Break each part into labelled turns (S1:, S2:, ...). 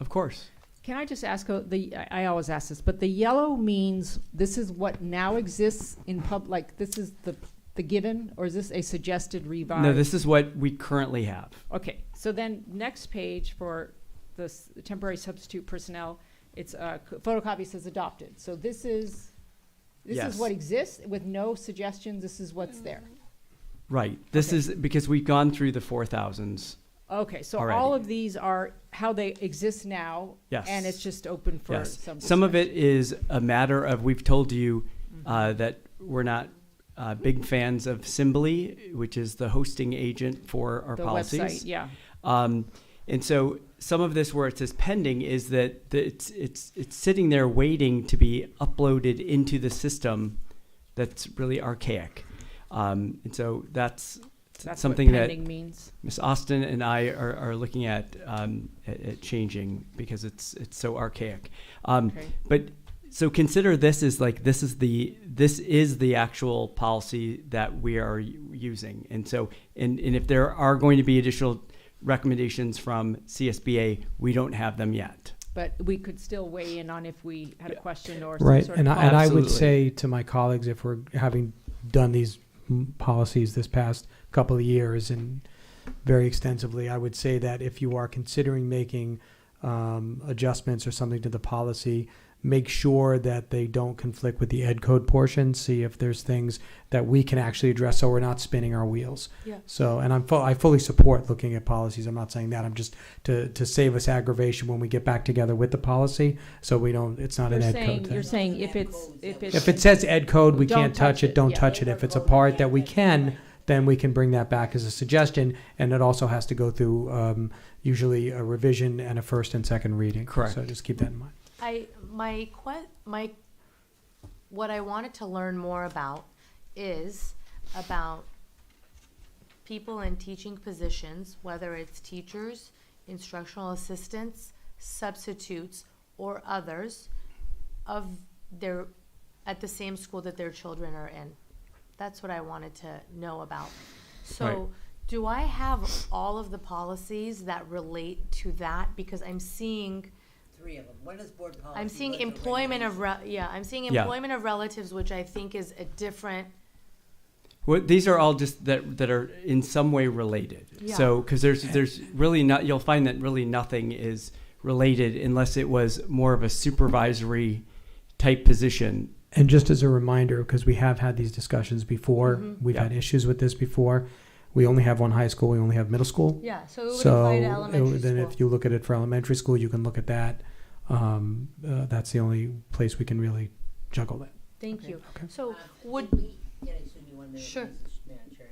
S1: Of course.
S2: Can I just ask, uh, the, I- I always ask this, but the yellow means this is what now exists in pub, like, this is the, the given, or is this a suggested revised?
S1: No, this is what we currently have.
S2: Okay, so then next page for the s- temporary substitute personnel, it's, uh, c- photocopy says adopted. So this is, this
S1: Yes.
S2: is what exists with no suggestions, this is what's there.
S1: Right. This
S2: Okay.
S1: is because we've gone through the four thousands.
S2: Okay, so all
S1: Mm-hmm. Alrighty.
S2: of these are how they exist now,
S1: Yes.
S2: and it's just open for
S1: yes.
S2: some.
S1: Some of it is a matter of we've told you
S2: Mm-hmm.
S1: uh, that we're not uh, big fans of Symbly, which is the hosting agent for our
S2: the
S1: policies.
S2: website, yeah.
S1: Um, and so some of this where it says pending is that the, it's, it's, it's sitting there waiting to be uploaded into the system that's really archaic. Um, and so that's,
S2: That's
S1: something
S2: what
S1: that
S2: pending means.
S1: Ms. Austin and I are, are looking at, um, at, at changing because it's, it's so archaic. Um,
S2: Okay.
S1: but so consider this as like this is the this is the actual policy that we are u- using and so and, and if there are going to be additional recommendations from csba we don't have them yet
S2: But we could still weigh in on if we had a question or some
S3: Right,
S2: sort
S3: and
S2: of.
S3: I, and I would
S1: Absolutely.
S3: say to my colleagues, if we're having done these mm, policies this past couple of years and very extensively, I would say that if you are considering making um, adjustments or something to the policy, make sure that they don't conflict with the ed code portion. See if there's things that we can actually address, so we're not spinning our wheels.
S2: Yeah.
S3: So, and I'm fu- I fully support looking at policies. I'm not saying that. I'm just to to save us aggravation when we get back together with the policy, so we don't. It's not
S2: You're
S3: an ed
S2: saying,
S3: code thing.
S2: you're saying if it's, if it's.
S3: If it says ed code, we
S2: Don't
S3: can't
S2: touch
S3: touch it,
S2: it,
S3: don't
S2: yeah.
S3: touch it. If it's a part that we can, then we can bring that back as a suggestion, and it also has to go through um, usually a revision and a first and second reading.
S1: Correct.
S3: So just keep that in mind.
S4: I, my que- my, what I wanted to learn more about is about people in teaching positions, whether it's teachers, instructional assistants, substitutes, or others of their, at the same school that their children are in. That's what I wanted to know about.
S1: Right.
S4: So, do I have all of the policies that relate to that? Because I'm seeing
S5: Three of them. One is board policy.
S4: I'm seeing
S5: one's a
S4: employment of,
S5: regulation.
S4: re- yeah, I'm seeing
S1: Yeah.
S4: employment of relatives, which I think is a different,
S1: well, these are all just that that are in some way related so because there's there's really not you'll find that really nothing is related unless it was more of a supervisory type position
S3: And just as a reminder, because we have had these discussions before,
S4: Mhm.
S3: we've
S1: Yeah.
S3: had issues with this before. We only have one high school, we only have middle school.
S4: yeah, so it would
S3: So
S4: apply to
S3: it
S4: elementary
S3: would- then
S4: school.
S3: if you look at it for elementary school, you can look at that. Um, uh, That's the only place we can really juggle that.
S4: Thank you.
S3: Okay.
S4: So
S5: Uh, did
S4: would,
S5: we- yeah, excuse me one minute,
S4: Sure.
S5: please, Madam Chair.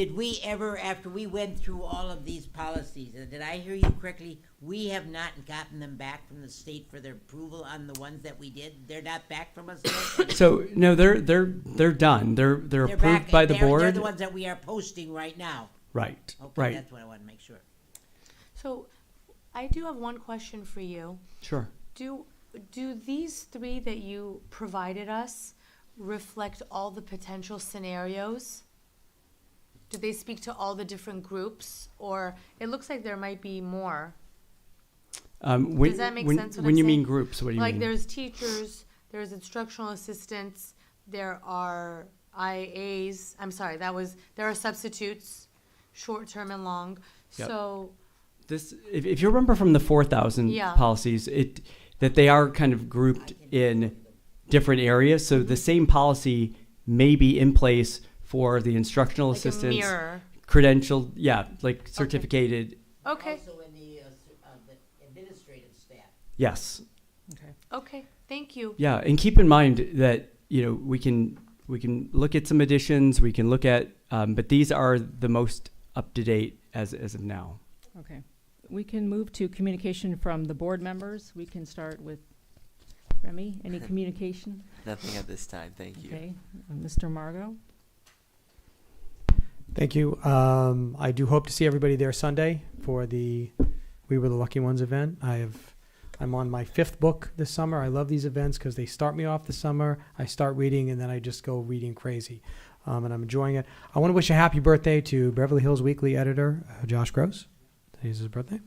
S5: Did we ever, after we went through all of these policies, and did I hear you correctly? We have not gotten them back from the state for their approval on the ones that we did? They're not back from us yet?
S1: so no they're they're they're done they're they're,
S5: They're
S1: approved
S5: back-
S1: by the
S5: they're-
S1: board
S5: They're the ones that we are posting right now.
S1: right
S5: Okay,
S1: right
S5: that's what I want to make sure.
S4: so I do have one question for you.
S1: sure
S4: Do, do these three that you provided us reflect all the potential scenarios? Do they speak to all the different groups, or it looks like there might be more?
S1: Um, when,
S4: Does that make
S1: when,
S4: sense what
S1: when
S4: I'm
S1: you
S4: saying?
S1: mean groups, what do you
S4: like
S1: mean?
S4: there's teachers, there's instructional assistants, there are IAs. I'm sorry, that was there are substitutes, short term and long.
S1: Yep.
S4: So
S1: this, if, if you remember from the four thousand
S4: Yeah.
S1: policies, it that they are kind of grouped in different areas. So
S4: Mm-hmm.
S1: the same policy may be in place for the instructional
S4: like a
S1: assistants,
S4: mirror.
S1: credentialed, yeah, like certificated.
S4: Okay.
S5: Also in the, uh, s- uh, the administrative staff.
S1: Yes,
S4: Okay. Thank you.
S1: yeah, and keep in mind that you know we can we can look at some additions, we can look at, um, but these are the most up to date as as of now.
S2: Okay. We can move to communication from the board members. We can start with Remy. Any communication?
S6: Nothing at this time, thank you.
S2: Okay. Uh, Mr. Margot?
S3: Thank you. Um, I do hope to see everybody there Sunday for the We Were the Lucky Ones event. I have, I'm on my fifth book this summer. I love these events because they start me off the summer. I start reading and then I just go reading crazy, um, and I'm enjoying it. I want to wish a happy birthday to Beverly Hills Weekly editor uh, Josh Gross. Today's his birthday.